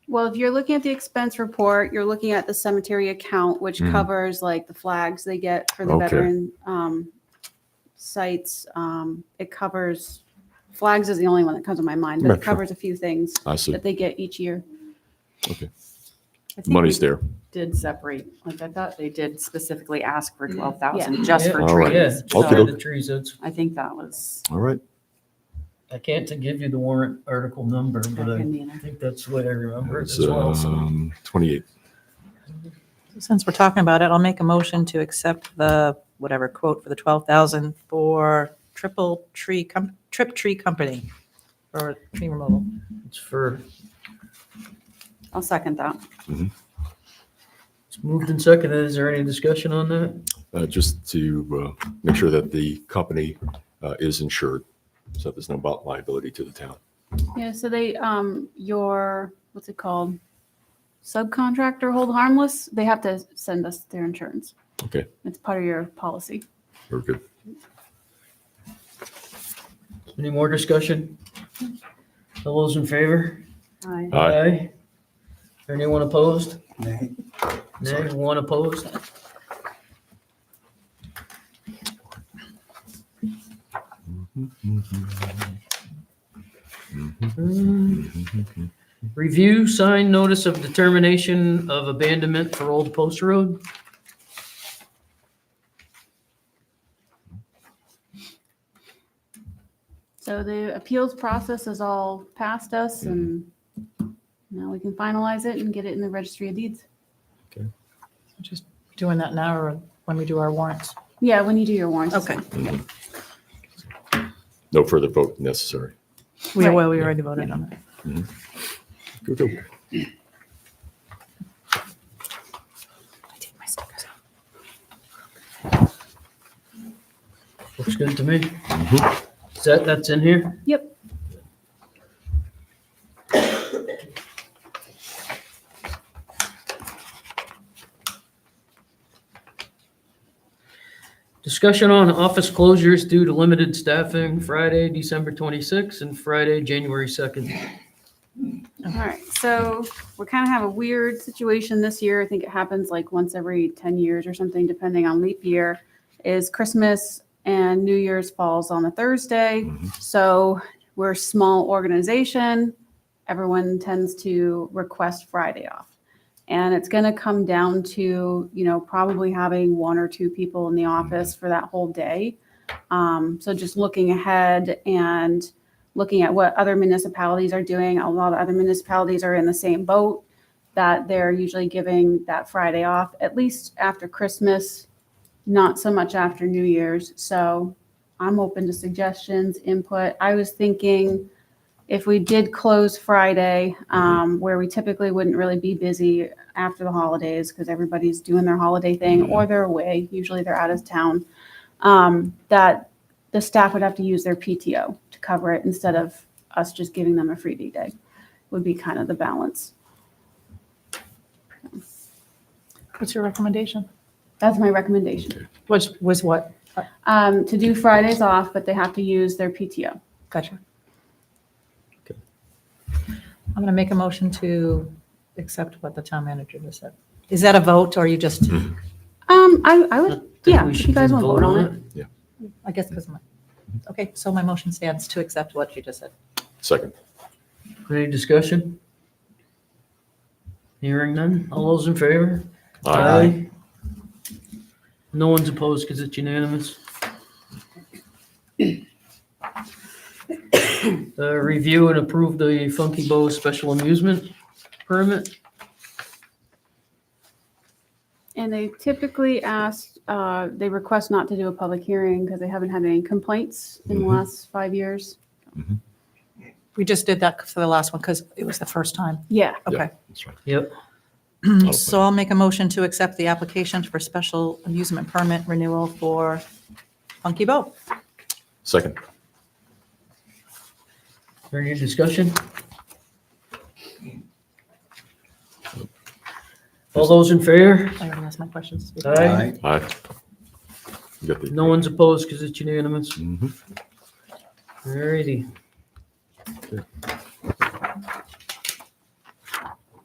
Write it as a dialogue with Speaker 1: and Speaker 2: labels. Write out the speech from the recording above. Speaker 1: Well, if you're looking at the expense report, you're looking at the cemetery account, which
Speaker 2: Mhm.
Speaker 1: covers like the flags they get for the
Speaker 2: Okay.
Speaker 1: veteran um, sites. Um, It covers, flags is the only one that comes to my mind, but it
Speaker 2: Metro.
Speaker 1: covers a few things
Speaker 2: I see.
Speaker 1: that they get each year.
Speaker 2: Okay.
Speaker 3: I think
Speaker 2: Money's
Speaker 3: we
Speaker 2: there.
Speaker 3: Did separate, like I thought they did specifically ask for
Speaker 4: Mhm.
Speaker 3: twelve thousand just for
Speaker 2: Yeah. All right.
Speaker 4: Yeah,
Speaker 3: trees.
Speaker 4: just
Speaker 3: So
Speaker 2: Okay.
Speaker 4: for the trees, it's,
Speaker 3: I think that was
Speaker 2: All right.
Speaker 4: I can't to give you the warrant article number,
Speaker 3: back
Speaker 4: but I
Speaker 3: in the,
Speaker 4: think that's what I remember it
Speaker 2: It's,
Speaker 4: as well, so.
Speaker 2: um, 28.
Speaker 5: Since we're talking about it, I'll make a motion to accept the, whatever quote for the 12,000 for Triple Tree, Com- Trip Tree Company for tree removal.
Speaker 4: It's for,
Speaker 3: I'll second that.
Speaker 4: it's moved and seconded. Is there any discussion on that?
Speaker 2: Uh, Just to uh, make sure that the company uh, is insured, so there's no bot- liability to the town.
Speaker 1: Yeah, so they, um, your, what's it called? Subcontractor hold harmless, they have to send us their insurance.
Speaker 2: Okay.
Speaker 1: It's part of your policy.
Speaker 2: Very good.
Speaker 4: Any more discussion? All those in favor?
Speaker 3: Aye.
Speaker 2: Aye.
Speaker 4: Anyone opposed? Nay, one opposed?
Speaker 2: Mhm.
Speaker 4: Review signed notice of determination of abandonment for Old Post Road.
Speaker 1: So the appeals process is all past us and now we can finalize it and get it in the registry of deeds.
Speaker 5: Just doing that now or when we do our warrants.
Speaker 1: Yeah, when you do your warrants. it's
Speaker 5: Okay.
Speaker 1: fine.
Speaker 2: No further vote necessary.
Speaker 5: We,
Speaker 1: Right.
Speaker 5: well, we already voted on it.
Speaker 2: Good, good.
Speaker 4: Looks good to me. Is that, that's in here?
Speaker 1: Yep.
Speaker 4: Discussion on office closures due to limited staffing Friday, December 26th and Friday, January 2nd.
Speaker 1: All right. So we kind of have a weird situation this year. I think it happens like once every 10 years or something, depending on leap year, is Christmas and New Year's falls on a Thursday.
Speaker 2: Mhm.
Speaker 1: So we're a small organization. Everyone tends to request Friday off. And it's going to come down to, you know, probably having one or two people in the office for that whole day. Um, so just looking ahead and looking at what other municipalities are doing. A lot of other municipalities are in the same boat that they're usually giving that Friday off, at least after Christmas, not so much after New Year's. So I'm open to suggestions, input. I was thinking if we did close Friday, um, where we typically wouldn't really be busy after the holidays because everybody's doing their holiday thing or they're away, usually they're out of town, um, that the staff would have to use their PTO to cover it instead of us just giving them a freebie day would be kind of the balance.
Speaker 5: What's your recommendation?
Speaker 1: That's my recommendation.
Speaker 5: Which was what?
Speaker 1: Um, to do Fridays off, but they have to use their PTO.
Speaker 5: Gotcha.
Speaker 2: Okay.
Speaker 5: I'm going to make a motion to accept what the town manager just said. Is that a vote or you just,
Speaker 4: Mm-hmm.
Speaker 1: Um, I, I would,
Speaker 4: Think
Speaker 1: Yeah,
Speaker 4: we
Speaker 1: you
Speaker 4: should
Speaker 1: guys wanna
Speaker 4: vote
Speaker 1: vote on
Speaker 5: I guess because my, okay, so my motion stands to accept what you just said.
Speaker 2: Second.
Speaker 4: it? Any discussion? Hearing none? All those in favor? No one's opposed because it's unanimous. Uh, Review and approve the Funky Bow special amusement permit.
Speaker 1: and they typically ask, uh, they request not to do a public hearing because they haven't had any complaints in the
Speaker 2: Mhm.
Speaker 1: last five years.
Speaker 5: We just did that for the last one because it was the first time.
Speaker 1: Yeah.
Speaker 5: Okay.
Speaker 2: That's right.
Speaker 4: Yep.
Speaker 2: I'll
Speaker 5: Mm-hmm. So I'll make a motion to accept the application for special amusement permit renewal for Funky Bow.
Speaker 2: Second.
Speaker 4: Any discussion? All those in favor?
Speaker 5: I already asked my questions.
Speaker 4: Aye.
Speaker 2: Aye. You got the- mm-hmm.
Speaker 4: No one's opposed because it's unanimous.
Speaker 2: Mhm.
Speaker 4: Alrighty.